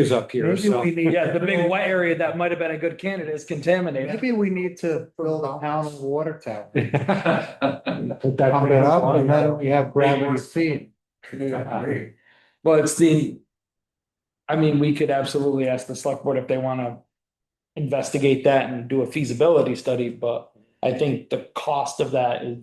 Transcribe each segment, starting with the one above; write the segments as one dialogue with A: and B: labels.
A: is up here,
B: Maybe
A: so.
B: we need.
C: Yeah, the big white area that might have been a good candidate is contaminated.
B: Maybe we need to build a town water tower.
A: Put that
B: Pump it up and then we have gravity feed.
C: Well, it's the. I mean, we could absolutely ask the select board if they wanna. Investigate that and do a feasibility study, but I think the cost of that is,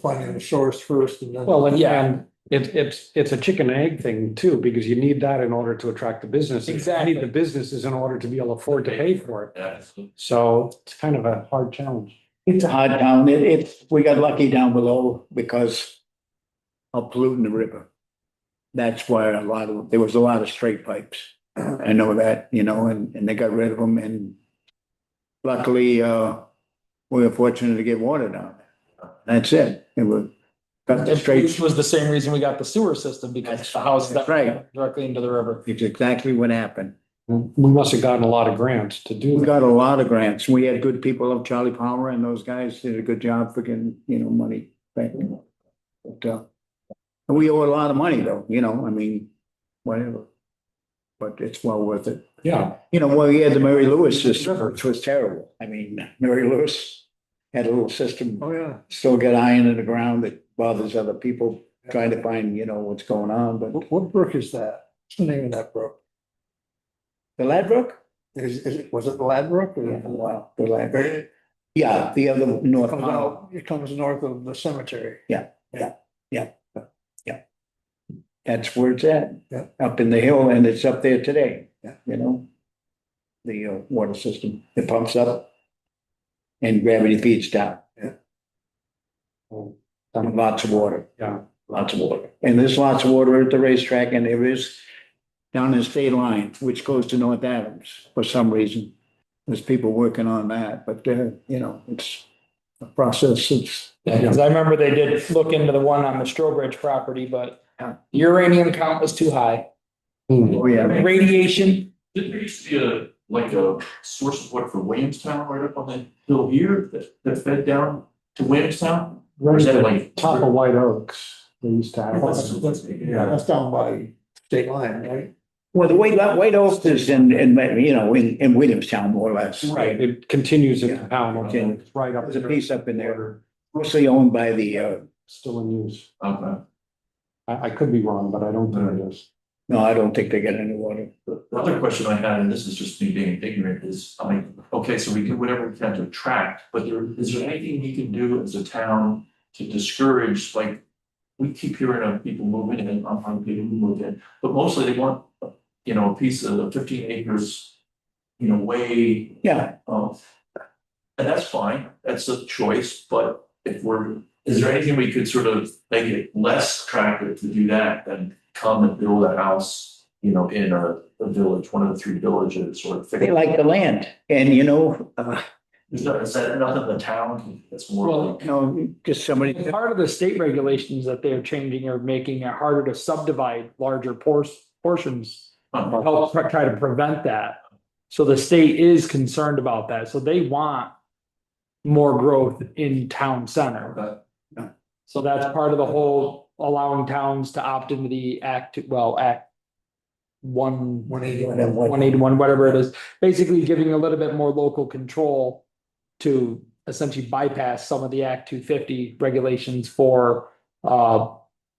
B: Finding the source first and then.
A: Well, and
C: Yeah.
A: and it it's it's a chicken and egg thing too, because you need that in order to attract the businesses. You
C: Exactly.
A: Need the businesses in order to be able to afford to pay for it. So it's kind of a hard challenge.
D: It's a hard town. It, it's, we got lucky down below because of polluting the river. That's why a lot of, there was a lot of straight pipes. I know that, you know, and, and they got rid of them and luckily, uh, we were fortunate to get water down. there. That's it. It was, got the
C: which
D: straight,
C: was the same reason we got the sewer system because
D: That's-
C: the house that
D: that's right.
C: directly into the river.
D: it's exactly what happened.
A: We must have gotten a lot of grants to do
D: We
A: that.
D: got a lot of grants. We had good people, like Charlie Palmer and those guys did a good job for getting, you know, money back. But, uh, and we owe a lot of money though, you know, I mean, whatever. But it's well worth it.
A: Yeah,
D: You know, well, you had the Mary Lewis system, which was terrible. I mean, Mary Lewis had a little system,
B: Oh, yeah.
D: still got iron in the ground that bothers other people trying to find, you know, what's going on, but
B: What, what brook is that? What's the name of that brook?
D: the Ladbroke?
B: Is, is, it- was it Ladbrook
D: Yeah,
B: or?
D: wow, the Ladbroke. Yeah, the other North.
B: Comes
D: Pownell.
B: out, it comes north of the cemetery.
D: That's where it's at,
B: Yeah.
D: up in the hill, and it's up there today,
B: Yeah.
D: you know? The uh, water system, it pumps up and gravity feeds down, Oh,
A: Um,
D: lots of water.
A: Yeah.
D: Lots of water, and there's lots of water at the racetrack, and there is down the state line, which goes to North Adams for some reason. There's people working on that, but, uh, you know, it's a process, it's
C: Cause I remember they did look into the one on the Strobridge property, but uranium count was too high.
A: hmm,
D: oh, yeah.
C: Radiation,
E: Didn't there used to be a, like a source of water for Williamstown right up on the hill here that, that fed down to Williamstown? Or
A: Right
E: is
A: at
E: that
A: the
E: like?
A: top of White Oaks, they used to have.
E: That's- that's- yeah.
B: That's down by state line, right?
D: Well, the White, White Oaks is in, in, you know, in, in Williamstown, more or less.
A: Right, it continues in
D: Yeah.
A: town, it's right up.
D: There's a piece up in there.
A: there,
D: mostly owned by the, uh,
A: Still in use.
E: Okay.
A: I I could be wrong, but I don't think it is.
D: no, I don't think they get any water.
E: The the other question I had, and this is just me being ignorant, is, I mean, okay, so we do whatever we can to attract, but there, is there anything we can do as a town to discourage, like, we keep hearing of people moving in, I'm, I'm people who move in, but mostly they want, you know, a piece of fifteen acres, you know, way
D: Yeah,
E: Um, and that's fine, that's a choice, but if we're, is there anything we could sort of make it less attractive to do that than come and build a house, you know, in a, a village, one of the three villages or.
D: they like the land and you know, uh,
E: Is that, is that nothing the town, that's more
D: you know, just somebody,
C: And part of the state regulations that they're changing are making it harder to subdivide larger por- portions.
E: like.
C: to help pre- try to prevent that. So the state is concerned about that, so they want more growth in town center.
E: But
C: So that's part of the whole allowing towns to opt into the act, well, act one,
B: One eighty.
C: one eighty-one, whatever it is, basically giving a little bit more local control to essentially bypass some of the Act two fifty regulations for uh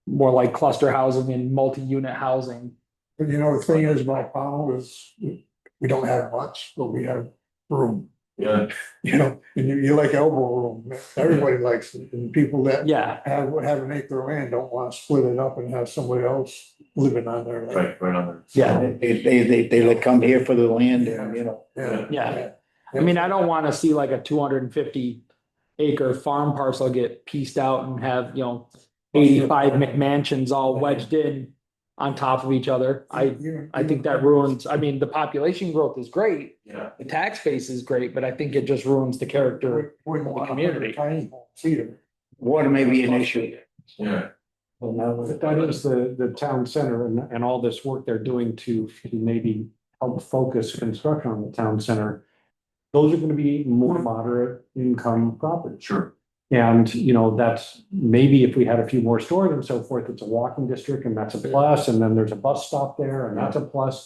C: more like cluster housing and multi-unit housing.
B: But you know, the thing is, my problem is, we don't have much, but we have room.
E: Yeah,
B: You know, and you, you like elbow room, everybody likes it, and people that
C: Yeah,
B: have, have an acre of land don't wanna split it up and have somebody else living on their land.
E: right, right on there.
C: yeah.
D: they, they, they, they like come here for the land and, you know.
B: Yeah.
C: Yeah. I mean, I don't wanna see like a two hundred and fifty acre farm parcel get pieced out and have, you know, eighty-five McMansions all wedged in on top of each other. I,
B: You-
C: I think that ruins, I mean, the population growth is great,
E: Yeah,
C: the tax base is great, but I think it just ruins the character.
B: Wouldn't want a hundred
C: community.
B: tiny homes either.
D: Water may be an issue.
E: yeah,
A: But that is the, the town center and, and all this work they're doing to to maybe help focus construction on the town center. Those are gonna be more moderate income properties.
E: sure,
C: And, you know, that's maybe if we had a few more stores and so forth, it's a walking district and that's a plus, and then there's a bus stop there and that's a plus.